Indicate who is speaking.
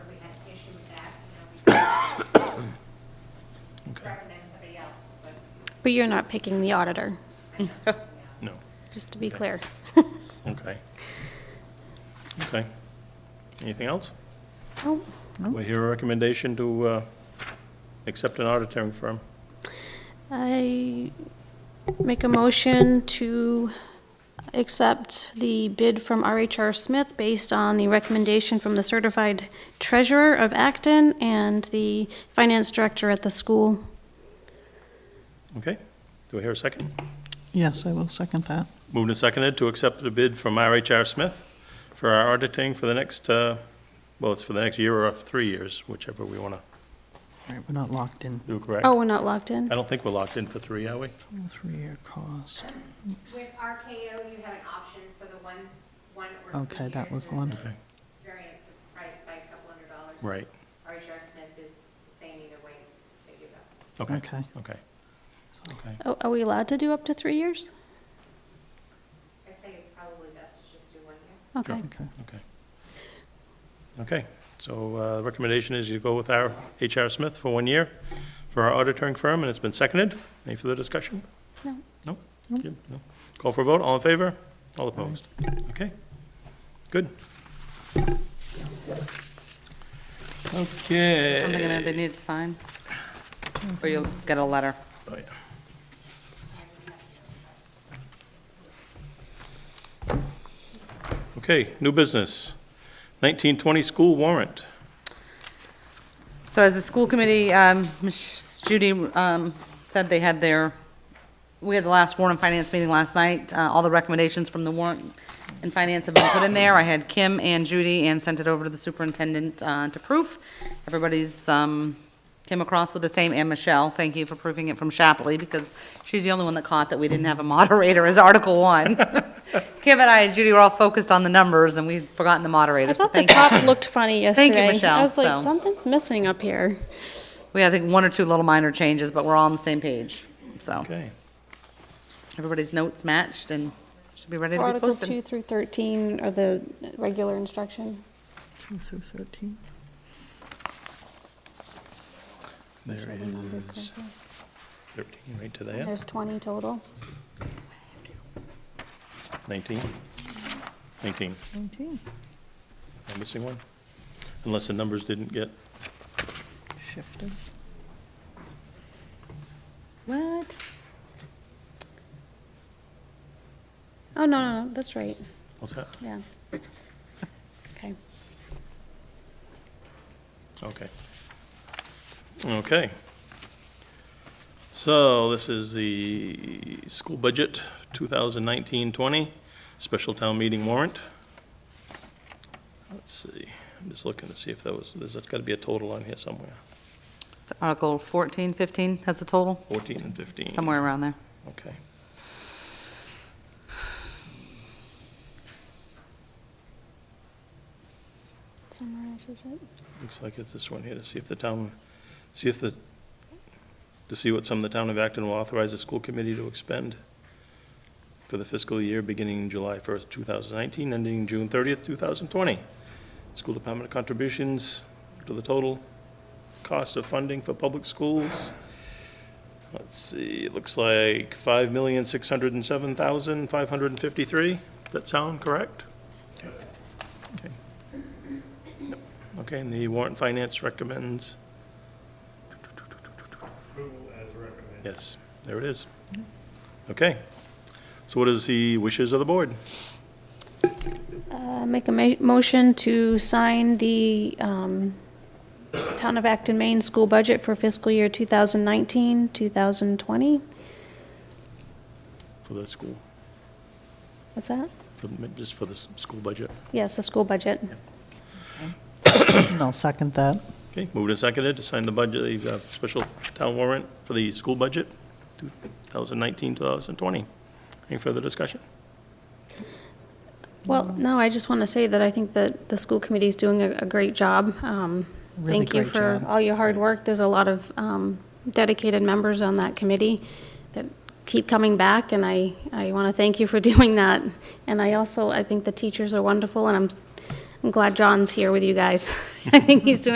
Speaker 1: But you're not picking the auditor,
Speaker 2: No,
Speaker 1: just to be clear.
Speaker 2: okay. Okay. Anything else?
Speaker 1: Oh,
Speaker 2: We hear a recommendation to uh, accept an auditing firm.
Speaker 1: I make a motion to accept the bid from RHR Smith based on the recommendation from the certified treasurer of Acton and the finance director at the school.
Speaker 2: Okay, do we hear a second?
Speaker 3: Yes, I will second that.
Speaker 2: Moved and seconded to accept the bid from RHR Smith for our auditing for the next, uh, well, it's for the next year or three years, whichever we want to
Speaker 3: All right, we're not locked in.
Speaker 2: do, correct?
Speaker 1: Oh, we're not locked in?
Speaker 2: I don't think we're locked in for three, are we?
Speaker 3: Three-year cost.
Speaker 4: With RKO, you have an option for the one, one or two
Speaker 3: Okay, that
Speaker 4: years,
Speaker 3: was
Speaker 4: and
Speaker 3: one.
Speaker 4: the Variance of price by a couple hundred dollars.
Speaker 2: Right,
Speaker 4: RHR Smith is saying either way, they give up.
Speaker 2: okay.
Speaker 3: Okay.
Speaker 2: Okay,
Speaker 3: So-
Speaker 2: okay.
Speaker 1: Oh, Are we allowed to do up to three years?
Speaker 4: I'd say it's probably best to just do one year.
Speaker 1: Okay.
Speaker 3: Okay.
Speaker 2: Okay. Okay, so uh, the recommendation is you go with our H.R. Smith for one year for our auditing firm, and it's been seconded. Any further discussion?
Speaker 1: No.
Speaker 2: No? Good, no. Call for a vote, all in favor? All opposed? Okay, good.
Speaker 5: Something in there
Speaker 2: Okay.
Speaker 5: they need to sign? Or you'll get a letter?
Speaker 2: Oh, yeah. Okay, new business. 1920 school warrant.
Speaker 5: So as a school committee, um, Ms. Judy um, said they had their, we had the last warrant and finance meeting last night. Uh, All the recommendations from the warrant and finance have been put in there. I had Kim and Judy and sent it over to the superintendent uh, to proof. Everybody's um, came across with the same, and Michelle, thank you for proving it from Shapley, because she's the only one that caught that we didn't have a moderator as Article One. Kim and I and Judy were all focused on the numbers, and we'd forgotten the moderator,
Speaker 1: I
Speaker 5: so
Speaker 1: thought the
Speaker 5: thank you.
Speaker 1: top looked funny yesterday.
Speaker 5: you, Michelle,
Speaker 1: I was like,
Speaker 5: so-
Speaker 1: something's missing up here.
Speaker 5: We had, I think, one or two little minor changes, but we're all on the same page. So
Speaker 2: Okay.
Speaker 5: everybody's notes matched and should be ready to be
Speaker 1: Articles 2
Speaker 5: posted.
Speaker 1: through 13 are the regular instruction.
Speaker 3: Two through 13.
Speaker 2: There is 13 right to that,
Speaker 1: There's 20 total.
Speaker 2: 19, 19.
Speaker 3: 19.
Speaker 2: Am I missing one? Unless the numbers didn't get,
Speaker 3: Shifted.
Speaker 5: What?
Speaker 1: Oh, no, no, no, that's right,
Speaker 2: what's that?
Speaker 1: yeah. Okay.
Speaker 2: Okay. Okay. So this is the school budget 2019-20, special town meeting warrant. Let's see, I'm just looking to see if that was, there's got to be a total on here somewhere,
Speaker 5: So Article 14, 15 has the total,
Speaker 2: 14 and 15.
Speaker 5: somewhere around there.
Speaker 2: Okay.
Speaker 1: Summarizes it.
Speaker 2: Looks like it's this one here, to see if the town, see if the, to see what sum the town of Acton will authorize the school committee to expend for the fiscal year beginning July 1st, 2019, ending June 30th, 2020. School department contributions to the total cost of funding for public schools. Let's see, it looks like 5607553 Does that sound correct? Okay. Okay, and the warrant finance recommends? Yes, there it is. Okay. So what is the wishes of the board?
Speaker 1: Uh, Make a ma- motion to sign the um, Town of Acton, Maine school budget for fiscal year 2019, 2020.
Speaker 2: For the school,
Speaker 1: What's that?
Speaker 2: for, the- just for the s- school budget.
Speaker 1: Yes, the school budget.
Speaker 3: And I'll second that.
Speaker 2: Okay, moved and seconded to sign the budget, the uh, special town warrant for the school budget, 2019, 2020. Any further discussion?
Speaker 1: Well,
Speaker 3: Um,
Speaker 1: no, I just want to say that I think that the school committee's doing a, a great job. Um,
Speaker 3: Really
Speaker 1: Thank you
Speaker 3: great
Speaker 1: for
Speaker 3: job.
Speaker 1: all your hard work. There's a lot of um, dedicated members on that committee that keep coming back, and I, I want to thank you for doing that. And I also, I think the teachers are wonderful, and I'm, I'm glad John's here with you guys. I think he's doing